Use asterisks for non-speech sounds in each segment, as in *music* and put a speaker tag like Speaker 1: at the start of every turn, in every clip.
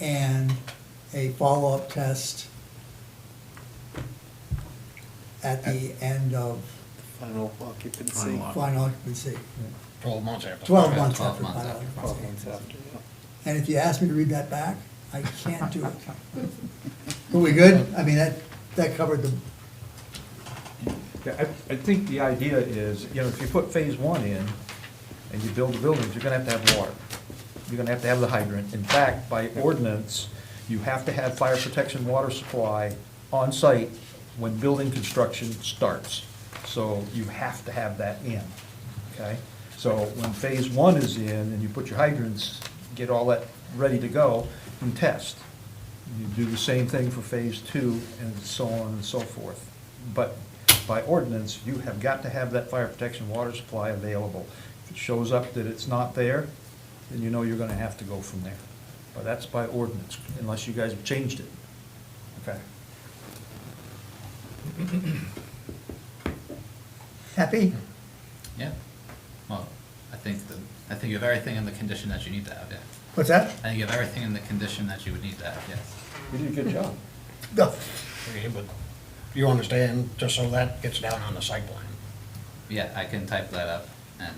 Speaker 1: and a follow-up test at the end of
Speaker 2: Final occupancy,
Speaker 3: Final.
Speaker 1: final occupancy,
Speaker 3: Twelve months after.
Speaker 1: 12 months after
Speaker 3: months
Speaker 1: final
Speaker 2: twelve
Speaker 1: occupancy.
Speaker 2: months after, yeah.
Speaker 1: And if you ask me to read that back, I can't do it. Are we good? I mean, that, that covered the,
Speaker 4: Yeah, I, I think the idea is, you know, if you put phase one in and you build the buildings, you're gonna have to have water. You're gonna have to have the hydrant. In fact, by ordinance, you have to have fire protection water supply on site when building construction starts. So you have to have that in, okay? So when phase one is in and you put your hydrants, get all that ready to go and test. You do the same thing for phase two and so on and so forth. But by ordinance, you have got to have that fire protection water supply available. If it shows up that it's not there, then you know you're gonna have to go from there. But that's by ordinance, unless you guys have changed it. Okay.
Speaker 1: happy?
Speaker 5: Yeah, well, I think the, I think you have everything in the condition that you need to have, yeah.
Speaker 1: What's that?
Speaker 5: I think you have everything in the condition that you would need to have, yes.
Speaker 4: You did a good job.
Speaker 1: No.
Speaker 3: Okay, but you understand, just so that gets down on the site plan.
Speaker 5: Yeah, I can type that up and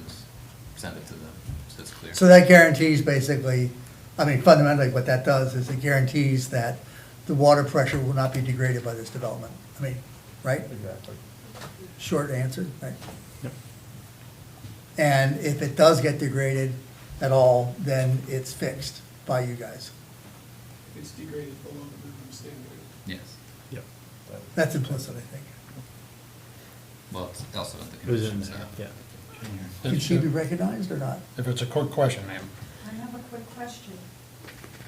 Speaker 5: send it to them, so it's clear.
Speaker 1: So that guarantees basically, I mean fundamentally what that does is it guarantees that the water pressure will not be degraded by this development. I mean, right?
Speaker 4: Exactly.
Speaker 1: Short answer, right? And if it does get degraded at all, then it's fixed by you guys.
Speaker 6: It's degraded below the minimum standard.
Speaker 5: Yes,
Speaker 7: Yep.
Speaker 1: That's implicit, I think.
Speaker 5: well, it's also in the
Speaker 7: It was in
Speaker 5: condition, so.
Speaker 7: there, yeah.
Speaker 1: Should she be recognized or not?
Speaker 3: If it's a quick question, ma'am,
Speaker 8: I have a quick question.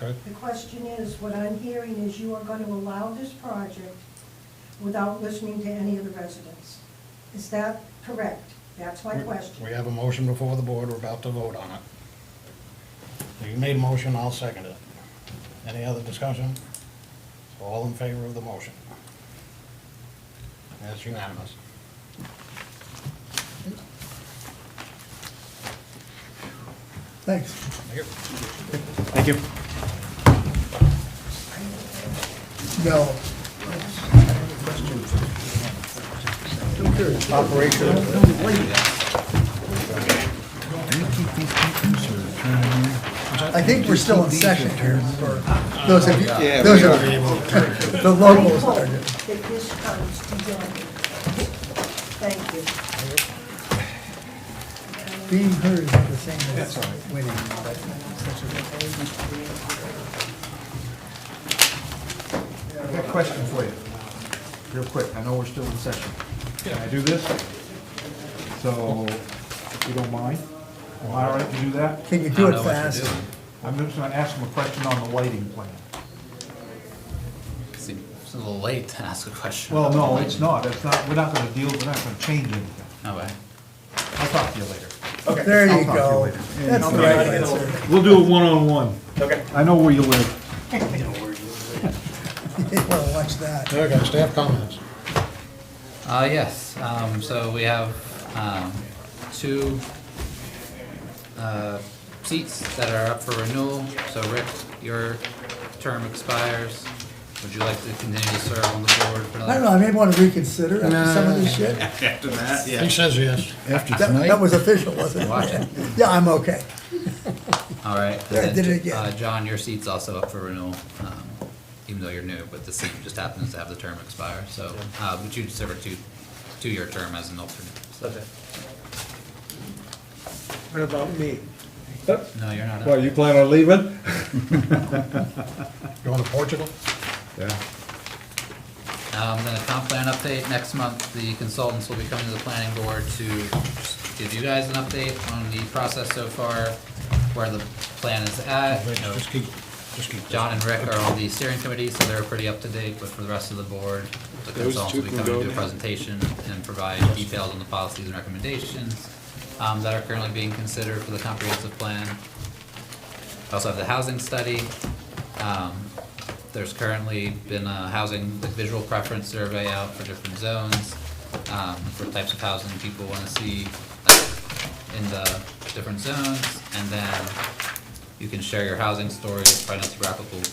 Speaker 3: okay?
Speaker 8: The question is, what I'm hearing is you are going to allow this project without listening to any of the residents. Is that correct? That's my
Speaker 3: We-
Speaker 8: question.
Speaker 3: We have a motion before the board, we're about to vote on it. You made a motion, I'll second it. Any other discussion? So all in favor of the motion? That's unanimous.
Speaker 1: Thanks.
Speaker 3: Thank you.
Speaker 7: Thank you.
Speaker 1: No. I think we're still in session here for those of you, those are, *laughs* the
Speaker 8: I
Speaker 1: locals
Speaker 8: hope
Speaker 1: are.
Speaker 8: that this comes to Danny. Thank you.
Speaker 1: Being heard is the same as winning, but such a-
Speaker 4: I've got a question for you, real quick, I know we're still in session. Can I do this? So, if you don't mind, am I all right to do that?
Speaker 1: Can you
Speaker 5: I
Speaker 1: do
Speaker 5: don't know
Speaker 1: it
Speaker 5: what you're
Speaker 1: fast?
Speaker 5: doing.
Speaker 4: I'm just gonna ask him a question on the lighting plan.
Speaker 5: Seem- It's a little late to ask a question.
Speaker 4: Well, no, it's not, it's not, we're not gonna deal, we're not gonna change anything.
Speaker 5: Okay.
Speaker 4: I'll talk to you later.
Speaker 1: There
Speaker 4: I'll
Speaker 1: you
Speaker 4: talk to
Speaker 1: go.
Speaker 4: later.
Speaker 1: That's the right answer. *laughs*
Speaker 7: We'll do it one-on-one. Okay. I know where you live.
Speaker 1: Well, watch that.
Speaker 3: Okay, staff comments.
Speaker 5: Uh, yes, um, so we have, um, two, uh, seats that are up for renewal. So Rick, your term expires. Would you like to continue to serve on the board for another?
Speaker 1: I don't know, I may want to reconsider after some of this shit.
Speaker 3: He says yes. After
Speaker 1: That, that was official, wasn't
Speaker 5: Watch
Speaker 1: it?
Speaker 5: it.
Speaker 1: Yeah, I'm okay.
Speaker 5: All right. and
Speaker 1: Yeah, I
Speaker 5: then,
Speaker 1: did it again.
Speaker 5: Uh, John, your seat's also up for renewal, um, even though you're new, but the seat just happens to have the term expire, so, uh, but you'd serve a two, two-year term as an alternate. so-
Speaker 2: What about me?
Speaker 5: No, you're not up.
Speaker 7: What, you plan on leaving?
Speaker 3: Going to Portugal?
Speaker 7: Yeah.
Speaker 5: Um, then a comp plan update, next month, the consultants will be coming to the planning board to just give you guys an update on the process so far, where the plan is at.
Speaker 3: Rich,
Speaker 5: you know,
Speaker 3: Just keep, just keep. this.
Speaker 5: John and Rick are on the steering committee, so they're pretty up to date, but for the rest of the board, the consultants will be coming to do a presentation and provide details on the policies and recommendations um, that are currently being considered for the comprehensive plan. I Also have the housing study. Um, There's currently been a housing, like visual preference survey out for different zones, um, for types of housing people wanna see like, in the different zones, and then you can share your housing stories, find us replicable